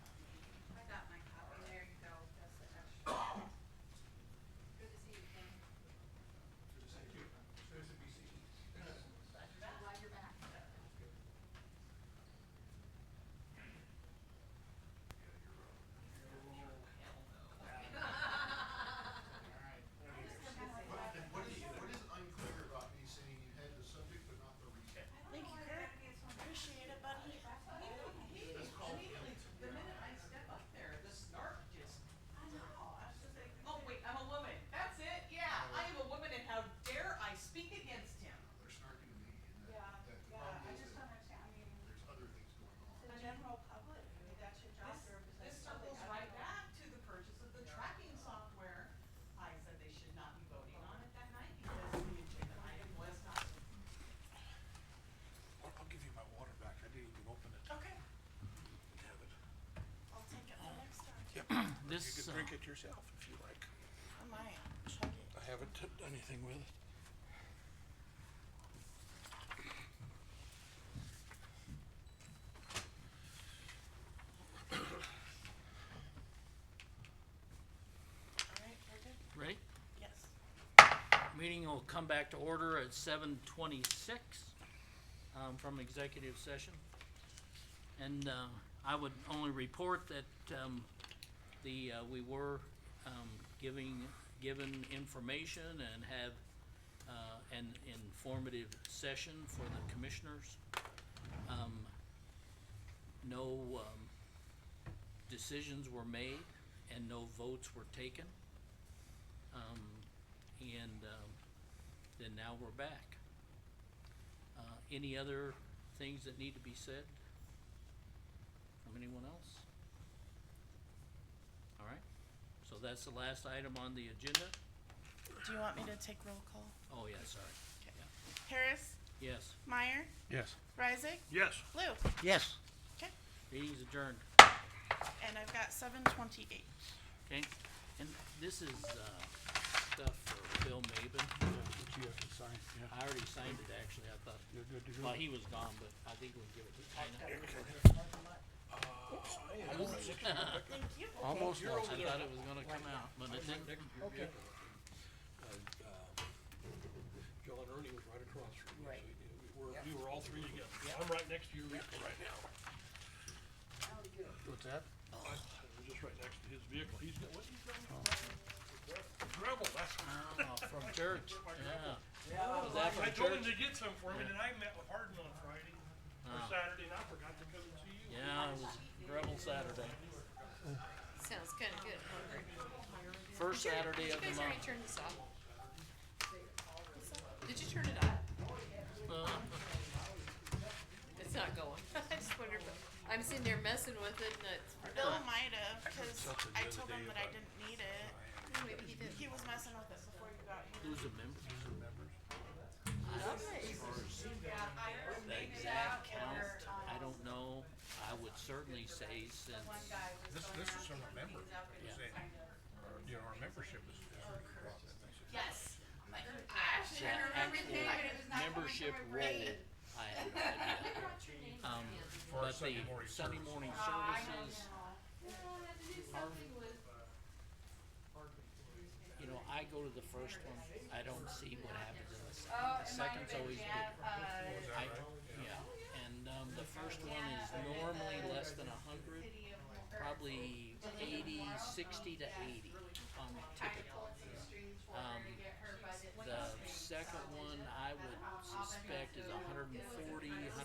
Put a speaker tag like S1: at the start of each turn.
S1: Oh,
S2: this.
S3: You can
S2: uh,
S3: drink it yourself if you like.
S2: I might chug it.
S3: I haven't done anything with it.
S2: All right, we're good?
S4: Ready?
S2: Yes.
S4: Meeting will come back to order at seven twenty-six, um, from executive session. And, uh, I would only report that, um, the, uh, we were, um, giving, given information and have, uh, an informative session for the commissioners. Um, no, um, decisions were made and no votes were taken. Um, and um, then now we're back. Uh, Any other things that need to be said from anyone else? All right, so that's the last item on the agenda.
S2: Do you want me to take roll call?
S4: Oh, yeah, sorry.
S2: Harris,
S4: Yes,
S2: Meyer,
S3: Yes.
S2: Reisig,
S3: Yes.
S2: Lou.
S5: Yes.
S2: Okay,
S4: meeting's adjourned.
S2: and I've got seven twenty-eight.
S4: Okay, and this is uh, stuff for Bill Maben.
S3: Yeah, but you have to sign, yeah.
S4: I already signed it, actually, I thought,
S3: You're good to go.
S4: well, he was gone, but I think we'll give it to Tina.
S3: Uh,
S2: Thank you.
S3: Almost
S4: I
S3: lost it.
S4: thought it was gonna come out, but it didn't.
S6: Okay.
S3: Joe and Uh, Ernie was right across from you, so
S6: Right.
S3: we were, we were all three together. I'm right next to you right now.
S5: What's that?
S4: Oh.
S3: I- I'm just right next to his vehicle. He's got, what's he driving? Gravel, that's.
S4: Oh, from church, yeah. Was that
S3: I
S4: from
S3: told him
S4: church?
S3: to get some for me, and then I met with Hardin on Friday, or
S4: Oh.
S3: Saturday, and I forgot to come and see you.
S4: Yeah, it was Rebel Saturday,
S7: Sounds kinda good, hungry.
S4: first Saturday of the
S7: Did you guys already
S4: month.
S7: turn this off? Did you turn it off?
S4: Uh,
S7: It's not going. I just wonder if, I'm sitting there messing with it and it's,
S2: Bill might have, cause
S3: something
S2: I
S3: the other
S2: told
S3: day
S2: him that I
S3: about-
S2: didn't need it.
S7: maybe he did.
S2: He was messing with it before you got here.
S4: Who's a member? The exact count, I don't know, I would certainly say since,
S6: This, this is from a member.
S4: yeah, Oh,
S6: You know, our membership is.
S1: Yes. "Oh, I actually
S4: that
S1: don't remember his name, but it was
S4: actual
S1: not coming
S4: membership
S1: from my
S4: role,
S1: brain.
S4: I have no idea. Um,
S6: For our
S4: but the
S6: Sunday morning
S4: Sunday
S6: service.
S4: morning
S1: Oh, I know
S4: services,
S1: now. Yeah, I had to do something with-
S4: you know, I go to the first one, I don't see what happens in the second.
S1: Oh, it might
S4: The
S1: have
S4: second's
S1: been
S4: always good.
S1: Jan- uh,
S4: I, yeah, and, um, the first one is normally less than a hundred,
S1: City of Mo- or
S4: probably um, eighty, sixty
S1: Oh,
S4: to eighty on
S1: I
S4: typical.
S1: told the strings for her to
S4: Um,
S1: get her budget.
S4: The second one, I would suspect is a hundred and forty,